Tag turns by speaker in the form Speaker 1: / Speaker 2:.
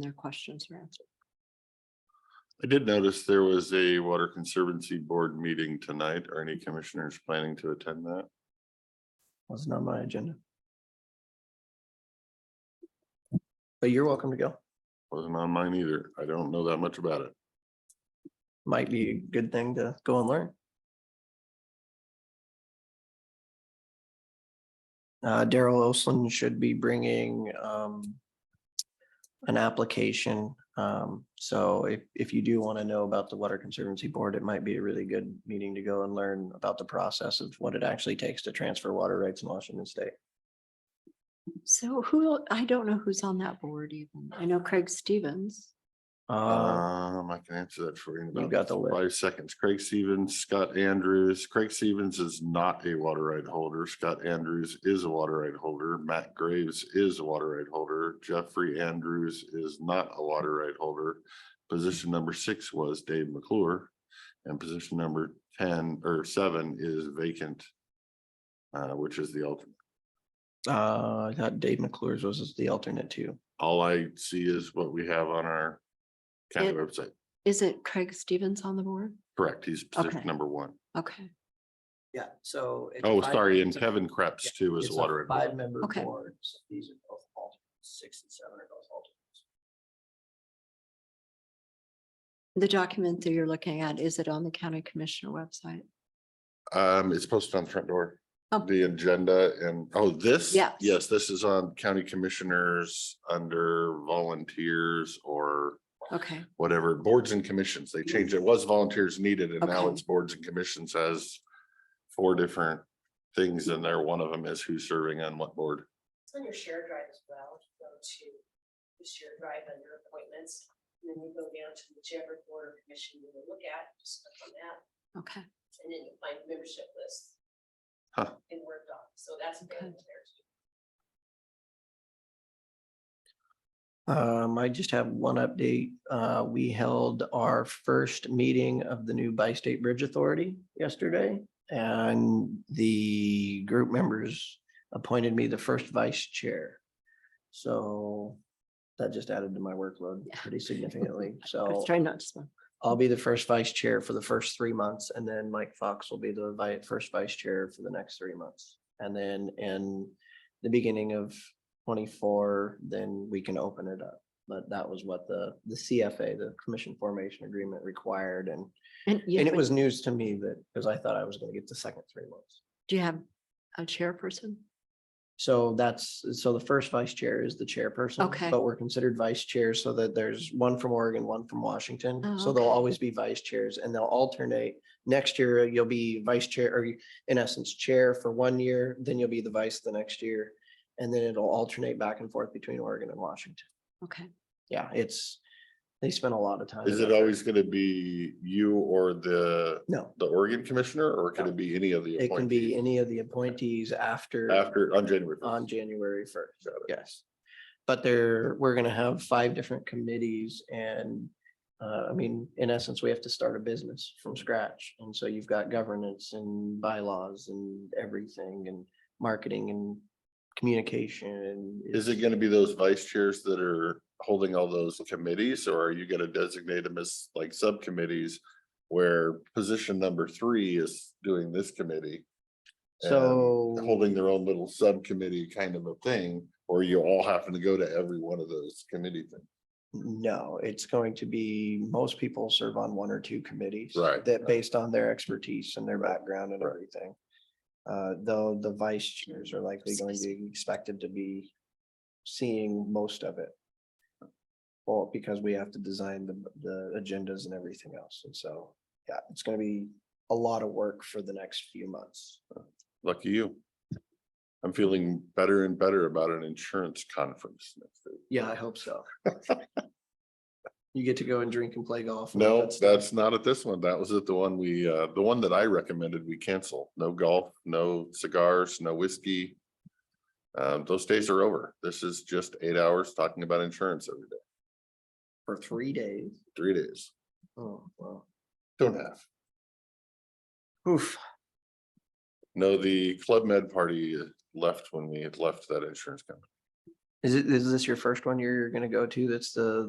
Speaker 1: their questions are answered.
Speaker 2: I did notice there was a Water Conservancy Board meeting tonight. Are any commissioners planning to attend that?
Speaker 3: Was not on my agenda. But you're welcome to go.
Speaker 2: Wasn't on mine either. I don't know that much about it.
Speaker 3: Might be a good thing to go and learn. Uh, Daryl Oslin should be bringing, um, an application. Um, so if, if you do want to know about the Water Conservancy Board, it might be a really good meeting to go and learn about the process of what it actually takes to transfer water rights in Washington state.
Speaker 1: So who, el- I don't know who's on that board even. I know Craig Stevens.
Speaker 3: Uh,
Speaker 2: Um, I can answer that for you. in
Speaker 3: You
Speaker 2: about
Speaker 3: got the list.
Speaker 2: Five seconds. Craig Stevens, Scott Andrews. Craig Stevens is not a water right holder. Scott Andrews is a water right holder. Matt Graves is a water right holder. Jeffrey Andrews is not a water right holder. Position number six was Dave McClure. And position number ten or seven is vacant. Uh, which is the alternate.
Speaker 3: uh, I thought Dave McClure's was the alternate too.
Speaker 2: All I see is what we have on our county
Speaker 1: It-
Speaker 2: website.
Speaker 1: Isn't Craig Stevens on the board?
Speaker 2: Correct. He's position
Speaker 1: Okay.
Speaker 2: number one.
Speaker 1: Okay,
Speaker 3: Yeah, so. it's
Speaker 2: Oh,
Speaker 3: five-
Speaker 2: sorry, and
Speaker 3: it's a-
Speaker 2: Kevin Krebs too is
Speaker 3: it's
Speaker 2: a
Speaker 3: a
Speaker 2: water. right holder.
Speaker 3: Five-member
Speaker 1: Okay.
Speaker 3: boards, these are both alternates, six and seven are both alternates.
Speaker 1: the document that you're looking at, is it on the county commissioner website?
Speaker 2: Um, it's posted on the front door.
Speaker 1: Oh.
Speaker 2: The agenda and, oh, this?
Speaker 1: Yes.
Speaker 2: Yes, this is on county commissioners under volunteers or
Speaker 1: Okay,
Speaker 2: whatever, boards and commissions. They changed it. It was volunteers needed and now
Speaker 1: Okay.
Speaker 2: it's boards and commissions has four different things in there. One of them is who's serving on what board.
Speaker 4: It's on your shared drive as well, If you go to the shared drive under appointments, and then you go down to whichever board or commission you want to look at, just click on that,
Speaker 1: okay.
Speaker 4: and then you find membership lists.
Speaker 2: Huh.
Speaker 4: In Word doc, so that's
Speaker 1: Okay.
Speaker 4: available there too.
Speaker 3: Um, I just have one update. Uh, we held our first meeting of the new Bi-State Bridge Authority yesterday. And the group members appointed me the first vice chair. So that just added to my workload
Speaker 1: Yeah.
Speaker 3: pretty significantly,
Speaker 1: I was
Speaker 3: so.
Speaker 1: trying not to smile.
Speaker 3: I'll be the first vice chair for the first three months, and then Mike Fox will be the vi- first vice chair for the next three months. And then in the beginning of twenty-four, then we can open it up. But that was what the, the CFA, the Commission Formation Agreement required, and,
Speaker 1: And you
Speaker 3: and it
Speaker 1: would-
Speaker 3: was news to me that, because I thought I was gonna get the second three months.
Speaker 1: do you have a chairperson?
Speaker 3: So that's, so the first vice chair is the chairperson.
Speaker 1: Okay.
Speaker 3: But we're considered vice chairs so that there's one from Oregon, one from
Speaker 1: Oh,
Speaker 3: Washington. So they'll
Speaker 1: okay.
Speaker 3: always be vice chairs and they'll alternate. Next year, uh, you'll be vice chair or you- in essence, chair for one year, then you'll be the vice the next year. And then it'll alternate back and forth between Oregon and Washington.
Speaker 1: Okay,
Speaker 3: Yeah, it's, they spend a lot of time.
Speaker 2: Is it
Speaker 3: and effort.
Speaker 2: always going to be you or the,
Speaker 3: No,
Speaker 2: the Oregon commissioner or could it be any of the?
Speaker 3: it can be
Speaker 2: appointees
Speaker 3: any of the appointees after.
Speaker 2: After, on January. first?
Speaker 3: on January first,
Speaker 2: Got it.
Speaker 3: yes. But there, we're gonna have five different committees and, uh, I mean, in essence, we have to start a business from scratch. And so you've got governance and bylaws and everything and marketing and communication.
Speaker 2: Is it gonna be those vice chairs that are holding all those committees, or are you gonna designate them as like subcommittees? Where position number three is doing this committee, and
Speaker 3: So,
Speaker 2: holding their own little subcommittee kind of a thing, or you all happen to go to every one of those committee things?
Speaker 3: no, it's going to be, most people serve on one or two committees.
Speaker 2: Right.
Speaker 3: That based on their expertise and their background and everything. Uh, though the vice chairs are likely going to be expected to be seeing most of it. Well, because we have to design the, the agendas and everything else. And so, yeah, it's gonna be a lot of work for the next few months.
Speaker 2: Lucky you. I'm feeling better and better about an insurance conference. next week.
Speaker 3: Yeah, I hope so. You get to go and drink and play golf. and all
Speaker 2: No,
Speaker 3: that stuff.
Speaker 2: that's not at this one. That was at the one we, uh, the one that I recommended we cancel. No golf, no cigars, no whiskey. Um, those days are over. This is just eight hours talking about insurance every day,
Speaker 3: For three days.
Speaker 2: three days.
Speaker 3: Oh, wow.
Speaker 2: Don't have.
Speaker 3: Oof.
Speaker 2: No, the Club Med party left when we had left that insurance company.
Speaker 3: Is it, is this your first one you're gonna go to? That's the,